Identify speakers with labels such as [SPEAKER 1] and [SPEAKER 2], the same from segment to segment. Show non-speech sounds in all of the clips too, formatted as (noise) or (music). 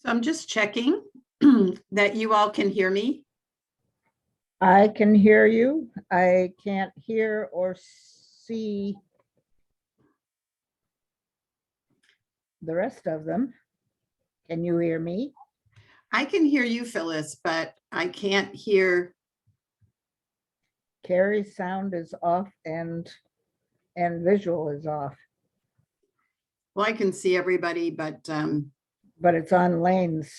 [SPEAKER 1] So I'm just checking (clears throat) that you all can hear me.
[SPEAKER 2] I can hear you. I can't hear or see the rest of them. Can you hear me?
[SPEAKER 1] I can hear you, Phyllis, but I can't hear.
[SPEAKER 2] Carrie's sound is off and, and visual is off,
[SPEAKER 1] Well, I can see everybody, but um,
[SPEAKER 2] but it's on lanes.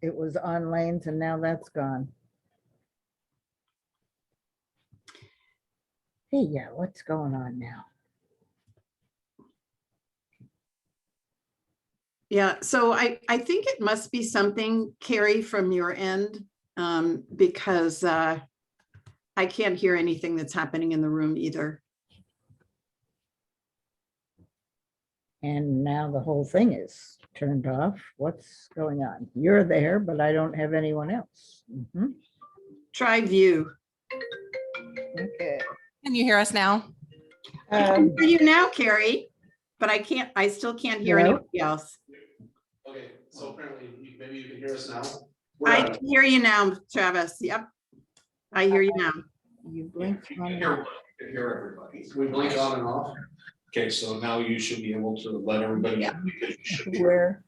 [SPEAKER 2] It was on lanes and now that's gone. Hey, yeah, what's going on now?
[SPEAKER 1] yeah, so I, I think it must be something, Carrie, from your end, um, because uh, I can't hear anything that's happening in the room either.
[SPEAKER 2] And now the whole thing is turned off. What's going on? You're there, but I don't have anyone else. Mhm.
[SPEAKER 1] Try view.
[SPEAKER 2] Okay.
[SPEAKER 3] Can you hear us now?
[SPEAKER 1] I can
[SPEAKER 2] Um,
[SPEAKER 1] hear you now, Carrie, but I can't, I still can't hear
[SPEAKER 2] Hello?
[SPEAKER 1] anybody else.
[SPEAKER 4] Okay, so apparently, you- maybe you can hear us now? We're
[SPEAKER 1] I
[SPEAKER 4] out.
[SPEAKER 1] can hear you now, Travis. Yep. I hear you now.
[SPEAKER 2] You blinked
[SPEAKER 4] You
[SPEAKER 2] on
[SPEAKER 4] can
[SPEAKER 2] and
[SPEAKER 4] hear-
[SPEAKER 2] off.
[SPEAKER 4] you can hear everybody. We blink on and off. Okay, so now you should be able to let everybody.
[SPEAKER 1] Yeah.
[SPEAKER 4] because you should be-
[SPEAKER 2] Where?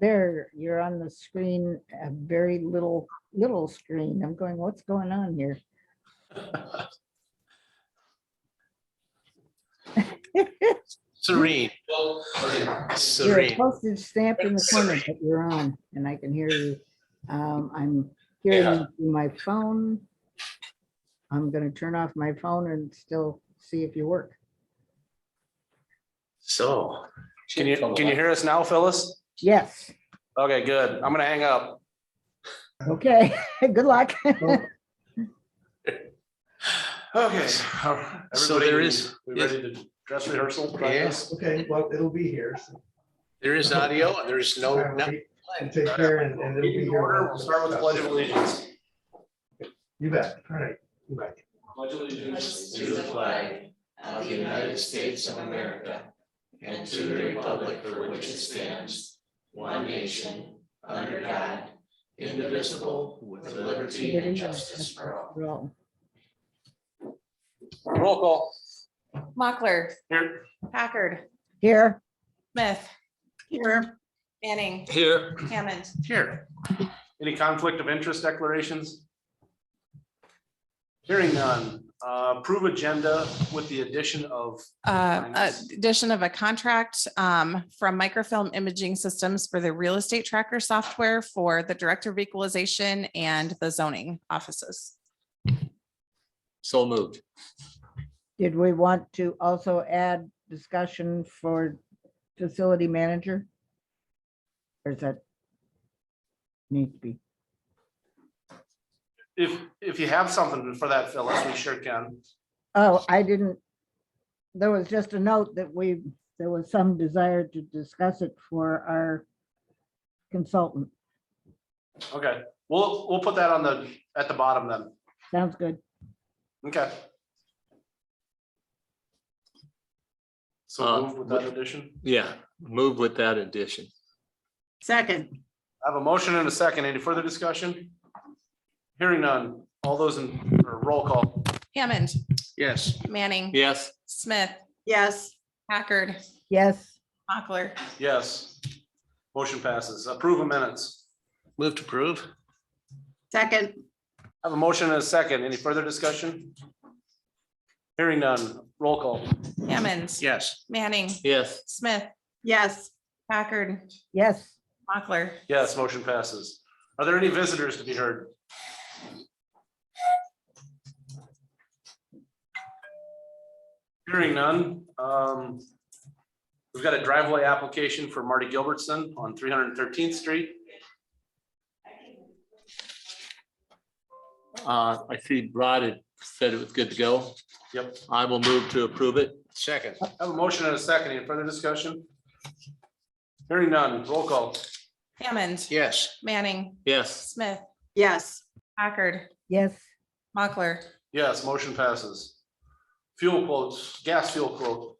[SPEAKER 2] There, you're on the screen, a very little, little screen. I'm going, what's going on here?
[SPEAKER 5] Serene,
[SPEAKER 4] Well, okay, so-
[SPEAKER 2] You're a
[SPEAKER 5] serene.
[SPEAKER 2] postage stamp in the corner, but you're on and I can hear you. Um, I'm hearing
[SPEAKER 4] Yeah.
[SPEAKER 2] you through my phone. I'm gonna turn off my phone and still see if you work.
[SPEAKER 5] So, can you, can you hear us now, Phyllis?
[SPEAKER 2] Yes.
[SPEAKER 5] Okay, good. I'm gonna hang up.
[SPEAKER 2] Okay, (laughs) good luck. (laughs)
[SPEAKER 5] Okay. So there is,
[SPEAKER 4] We ready to dress rehearsal? practice?
[SPEAKER 6] Okay, well, it'll be here. so
[SPEAKER 5] there is audio and there's no,
[SPEAKER 6] All
[SPEAKER 5] no-
[SPEAKER 6] right, And take care and and it'll be
[SPEAKER 4] Meeting
[SPEAKER 6] here.
[SPEAKER 4] order, we'll start with the pledge of allegiance.
[SPEAKER 6] You bet. All right. You bet.
[SPEAKER 4] Pledge of allegiance
[SPEAKER 7] to the flag of the United States of America and to the republic for which it stands, one nation, under God, indivisible, with liberty and justice for all.
[SPEAKER 2] Roll.
[SPEAKER 5] roll call.
[SPEAKER 3] Mochler,
[SPEAKER 5] Here.
[SPEAKER 3] Packard,
[SPEAKER 2] Here,
[SPEAKER 3] Smith,
[SPEAKER 1] Here.
[SPEAKER 3] Manning,
[SPEAKER 5] Here.
[SPEAKER 3] Hammond.
[SPEAKER 5] Here. Any conflict of interest declarations? Hearing none. Uh, Approve agenda with the addition of,
[SPEAKER 3] Uh,
[SPEAKER 5] Finance.
[SPEAKER 3] addition of a contract um, from Microfilm Imaging Systems for the real estate tracker software for the Director of Equalization and the zoning offices.
[SPEAKER 8] So moved.
[SPEAKER 2] did we want to also add discussion for facility manager? Or is that? Need to be,
[SPEAKER 5] if, if you have something for that, Phyllis, we sure can.
[SPEAKER 2] oh, I didn't. There was just a note that we, there was some desire to discuss it for our consultant.
[SPEAKER 5] Okay, we'll, we'll put that on the, at the bottom then.
[SPEAKER 2] Sounds good.
[SPEAKER 5] Okay.
[SPEAKER 8] Uh,
[SPEAKER 5] So move with that addition.
[SPEAKER 8] Yeah, move with that addition.
[SPEAKER 1] Second.
[SPEAKER 5] I have a motion and a second. Any further discussion? Hearing none. All those in, or roll call.
[SPEAKER 3] Hammond,
[SPEAKER 5] Yes.
[SPEAKER 3] Manning,
[SPEAKER 8] Yes,
[SPEAKER 3] Smith,
[SPEAKER 1] Yes.
[SPEAKER 3] Packard,
[SPEAKER 2] Yes,
[SPEAKER 3] Mochler,
[SPEAKER 5] Yes. Motion passes. Approve of minutes.
[SPEAKER 8] move to approve.
[SPEAKER 1] Second.
[SPEAKER 5] I have a motion and a second. Any further discussion? Hearing none. Roll call.
[SPEAKER 3] Hammond,
[SPEAKER 5] Yes.
[SPEAKER 3] Manning,
[SPEAKER 8] Yes,
[SPEAKER 3] Smith,
[SPEAKER 1] Yes.
[SPEAKER 3] Packard,
[SPEAKER 2] yes.
[SPEAKER 3] Mochler.
[SPEAKER 5] Yes, motion passes. Are there any visitors to be heard? Hearing none, um, we've got a driveway application for Marty Gilbertson on three hundred and thirteenth street.
[SPEAKER 8] uh, I see Rod had said it was good to go.
[SPEAKER 5] Yep.
[SPEAKER 8] I will move to approve it.
[SPEAKER 5] Second. I have a motion and a second. Any further discussion? Hearing none, roll call.
[SPEAKER 3] Hammond,
[SPEAKER 5] Yes.
[SPEAKER 3] Manning,
[SPEAKER 8] Yes,
[SPEAKER 3] Smith,
[SPEAKER 1] Yes.
[SPEAKER 3] Packard,
[SPEAKER 2] Yes,
[SPEAKER 3] Mochler.
[SPEAKER 5] Yes, motion passes. Fuel quotes, gas fuel quote.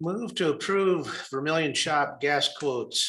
[SPEAKER 9] Move to approve Vermillion Shop gas quotes